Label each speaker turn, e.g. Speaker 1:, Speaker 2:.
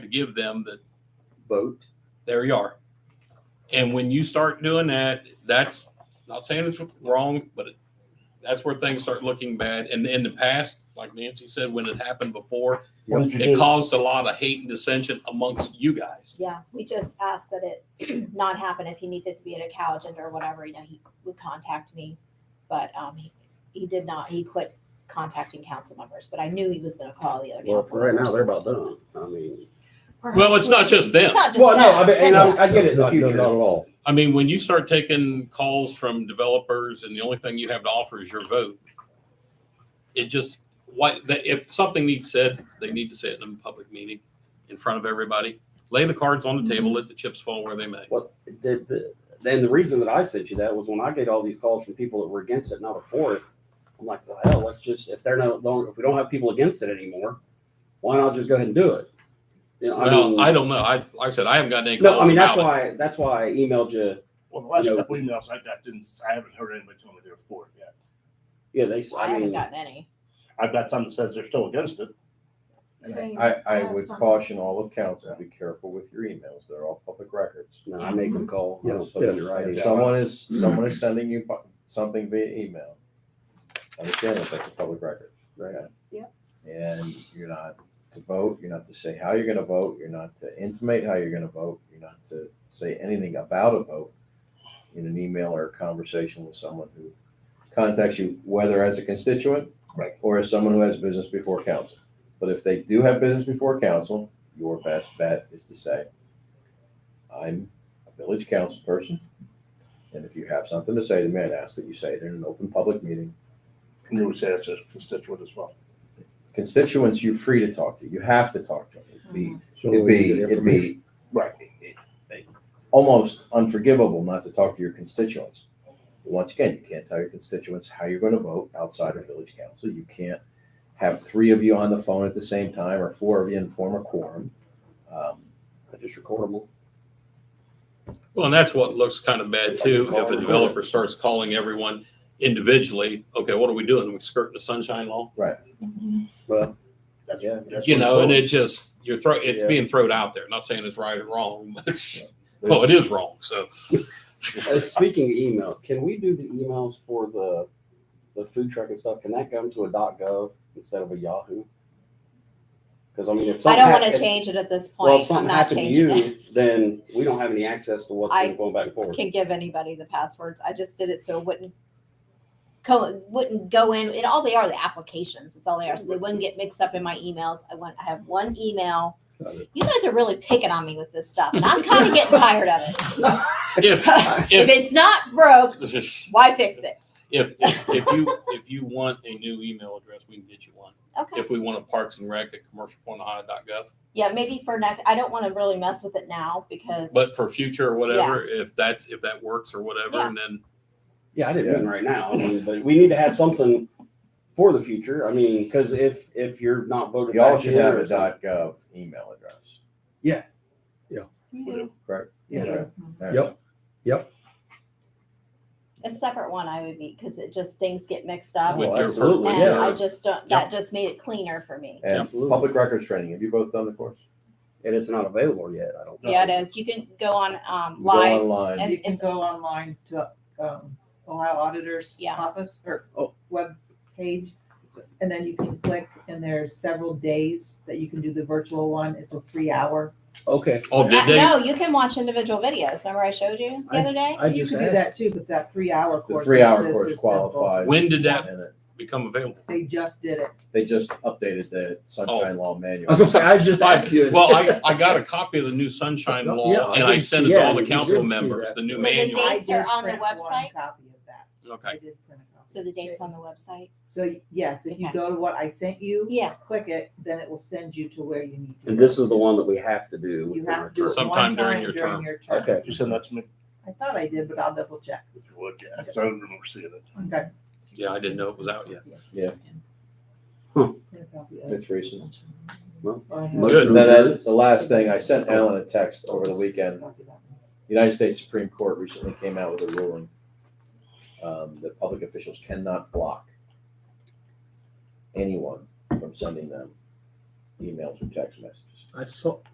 Speaker 1: give them that
Speaker 2: vote.
Speaker 1: there you are. And when you start doing that, that's not saying it's wrong, but it, that's where things start looking bad. And in the past, like Nancy said, when it happened before,
Speaker 3: What did you
Speaker 1: it
Speaker 3: do?
Speaker 1: caused a lot of hate and dissension amongst you guys.
Speaker 4: Yeah, we just asked that it not happen if he needed to be at a cow agenda or whatever, you know, he would contact me. But, um, he, he did not, he quit contacting council members, but I knew he was gonna call the other
Speaker 2: Well, for
Speaker 4: council
Speaker 2: right now,
Speaker 4: members.
Speaker 2: they're about done. I mean,
Speaker 1: Well, it's not just
Speaker 4: It's
Speaker 1: them.
Speaker 4: not just
Speaker 2: well, no, I
Speaker 4: that,
Speaker 2: mean,
Speaker 4: it's
Speaker 2: and
Speaker 4: anyone.
Speaker 2: I, I get it in the
Speaker 3: Not- no,
Speaker 2: future.
Speaker 3: not at all.
Speaker 1: I mean, when you start taking calls from developers and the only thing you have to offer is your vote, it just, why, that- if something needs said, they need to say it in a public meeting in front of everybody. Lay the cards on the
Speaker 2: Mm-hmm.
Speaker 1: table, let the chips fall where they may.
Speaker 2: Well, the, the, then the reason that I sent you that was when I get all these calls from people that were against it, not for it. I'm like, well, hell, let's just, if they're not, don't, if we don't have people against it anymore, why not just go ahead and do it? You know, I mean,
Speaker 1: Well, I don't know. I, like I said, I haven't gotten any
Speaker 2: No, I
Speaker 1: calls
Speaker 2: mean, that's
Speaker 1: about it.
Speaker 2: why, that's why I emailed you.
Speaker 3: Well, the last
Speaker 2: No.
Speaker 3: couple emails I got didn't, I haven't heard anybody tell me they're for it yet.
Speaker 2: Yeah, they,
Speaker 4: I
Speaker 2: I
Speaker 4: haven't
Speaker 2: mean,
Speaker 4: gotten any.
Speaker 3: I've got some that says they're still against it.
Speaker 5: I, I would caution all of council, to be careful with your emails. They're all public records.
Speaker 2: no, I make them call. I don't
Speaker 3: Yes,
Speaker 2: put it in
Speaker 3: yes.
Speaker 2: writing.
Speaker 5: If someone is, someone is sending you pu- something via email, understand that that's a public record.
Speaker 2: Right.
Speaker 5: And you're not to vote, you're not to say how you're gonna vote, you're not to intimate how you're gonna vote, you're not to say anything about a vote in an email or a conversation with someone who contacts you, whether as a constituent.
Speaker 3: Right.
Speaker 5: Or as someone who has business before council. But if they do have business before council, your best bet is to say, I'm a village council person. And if you have something to say to me, I'd ask that you say it in an open public meeting
Speaker 3: And you would say that's a constituent as well.
Speaker 5: constituents you're free to talk to. You have to talk to them. It'd be,
Speaker 6: Uh-huh.
Speaker 5: it'd
Speaker 2: we
Speaker 5: be,
Speaker 2: get
Speaker 5: it'd be
Speaker 3: Right.
Speaker 5: almost unforgivable not to talk to your constituents. Once again, you can't tell your constituents how you're going to vote outside of village council. You can't have three of you on the phone at the same time or four of you and form a quorum. Um,
Speaker 2: I just record them. all.
Speaker 1: Well, and that's what looks kind of bad too. If a developer starts calling everyone individually, okay, what are we doing? We skirting the sunshine law?
Speaker 2: Well,
Speaker 3: That's-
Speaker 2: Yeah.
Speaker 3: that's
Speaker 1: You
Speaker 3: what
Speaker 1: know,
Speaker 3: it's
Speaker 1: and
Speaker 3: for.
Speaker 1: it just, you're throw, it's
Speaker 2: Yeah.
Speaker 1: being thrown out there. Not saying it's right or wrong, but well, it is wrong. So
Speaker 2: uh, speaking of email, can we do the emails for the, the food truck and stuff? Can that come to a .gov instead of a Yahoo? Because I mean, if
Speaker 4: I
Speaker 2: something.
Speaker 4: don't
Speaker 2: hap-
Speaker 4: wanna
Speaker 2: if-
Speaker 4: change it at this
Speaker 2: Well, if
Speaker 4: point, I'm
Speaker 2: something
Speaker 4: not
Speaker 2: happened to you,
Speaker 4: changing it.
Speaker 2: then we don't have any access to what's
Speaker 4: I
Speaker 2: been going back and forth.
Speaker 4: Can give anybody the passwords, I just did it so it wouldn't co, wouldn't go in, and all they are, the applications, it's all they are, so they wouldn't get mixed up in my emails, I want, I have one email.
Speaker 2: Got it.
Speaker 4: You guys are really picking on me with this stuff, and I'm kinda getting tired of it.
Speaker 1: if,
Speaker 4: If
Speaker 1: if,
Speaker 4: it's not broke, why fix it?
Speaker 1: if, if if you, if you want a new email address, we can get you one.
Speaker 4: Okay.
Speaker 1: If we want a parks and rec at commercialpointohio.gov.
Speaker 4: Yeah, maybe for next, I don't want to really mess with it now because.
Speaker 1: But for future or whatever, if that's, if that works or whatever, and then
Speaker 2: Yeah, I didn't mean right now, I mean, but we need to have something for the future. I mean, because if, if you're not voted
Speaker 5: Y'all
Speaker 2: back in
Speaker 5: should have
Speaker 2: or
Speaker 5: a
Speaker 2: something-
Speaker 5: dot gov email address.
Speaker 4: Mhm.
Speaker 5: Okay?
Speaker 6: Mm-hmm.
Speaker 5: All
Speaker 3: Yep.
Speaker 5: right.
Speaker 4: A separate one I would be because it just things get mixed up.
Speaker 1: with
Speaker 2: Oh,
Speaker 1: your,
Speaker 2: absolutely,
Speaker 4: and
Speaker 2: yeah.
Speaker 4: I just don't, that just made it cleaner for me.
Speaker 5: And
Speaker 2: Absolutely.
Speaker 5: public records training. Have you both done the course?
Speaker 2: And it's not available yet, I don't think.
Speaker 4: Yeah, it is. You can go on um,
Speaker 5: Go
Speaker 4: live.
Speaker 5: Online.
Speaker 4: And
Speaker 6: You can
Speaker 4: it's-
Speaker 6: go online to, um, Ohio Auditor's
Speaker 4: Yeah.
Speaker 6: Office or
Speaker 2: Oh.
Speaker 6: web page. And then you can click and there's several days that you can do the virtual one. It's a three hour.
Speaker 2: Okay,
Speaker 1: oh, did
Speaker 4: Uh,
Speaker 1: they?
Speaker 4: No, you can watch individual videos. Remember I showed you the
Speaker 2: I-
Speaker 4: other day?
Speaker 2: I
Speaker 6: You
Speaker 2: just
Speaker 6: can do
Speaker 2: asked,
Speaker 6: that too, but that three hour
Speaker 5: The
Speaker 6: course.
Speaker 5: three
Speaker 6: is
Speaker 5: hour
Speaker 6: just
Speaker 5: course
Speaker 6: as simple.
Speaker 5: qualifies.
Speaker 1: When did that
Speaker 5: And it-
Speaker 1: become available?
Speaker 6: They just did it.
Speaker 5: They just updated the sunshine law manual.
Speaker 2: I was gonna say, I just
Speaker 1: I-
Speaker 2: asked you.
Speaker 1: Well, I, I got a copy of the new sunshine
Speaker 2: Yeah,
Speaker 1: law
Speaker 2: I
Speaker 1: and I
Speaker 2: did
Speaker 1: sent it
Speaker 2: see-
Speaker 1: to
Speaker 2: yeah,
Speaker 1: all the
Speaker 2: you
Speaker 1: council
Speaker 2: did see
Speaker 1: members,
Speaker 2: that.
Speaker 1: the new
Speaker 4: So the
Speaker 1: manual.
Speaker 6: I
Speaker 4: Dates are
Speaker 6: did
Speaker 4: on the
Speaker 6: print one
Speaker 4: website?
Speaker 6: Copy of that. I
Speaker 1: Okay.
Speaker 6: did print a copy.
Speaker 4: So the date's on the website.
Speaker 6: So yes, if you
Speaker 4: Okay.
Speaker 6: go to what I sent you,
Speaker 4: Yeah.
Speaker 6: click it, then it will send you to where you need to.
Speaker 2: And
Speaker 6: go.
Speaker 2: this is the one that we have to do.
Speaker 6: You
Speaker 2: within
Speaker 6: have
Speaker 2: our
Speaker 6: to do it
Speaker 2: term.
Speaker 1: Sometime
Speaker 6: one
Speaker 1: during
Speaker 6: time
Speaker 1: your term.
Speaker 6: during your term.
Speaker 2: Okay,
Speaker 3: You send that to me
Speaker 6: I thought I did, but I'll double check.
Speaker 3: if you would, yeah, 'cause I don't remember seeing it.
Speaker 6: Okay.
Speaker 1: Yeah, I didn't know it was out yet.
Speaker 5: Yeah.
Speaker 2: Huh.
Speaker 6: No copy of it.
Speaker 5: It's recent.
Speaker 6: I have-
Speaker 2: Motion
Speaker 5: And then uh,
Speaker 2: adjourned.
Speaker 5: the last thing, I sent Alan a text over the weekend. United States Supreme Court recently came out with a ruling um, that public officials cannot block anyone from sending them emails or text messages.
Speaker 2: I saw,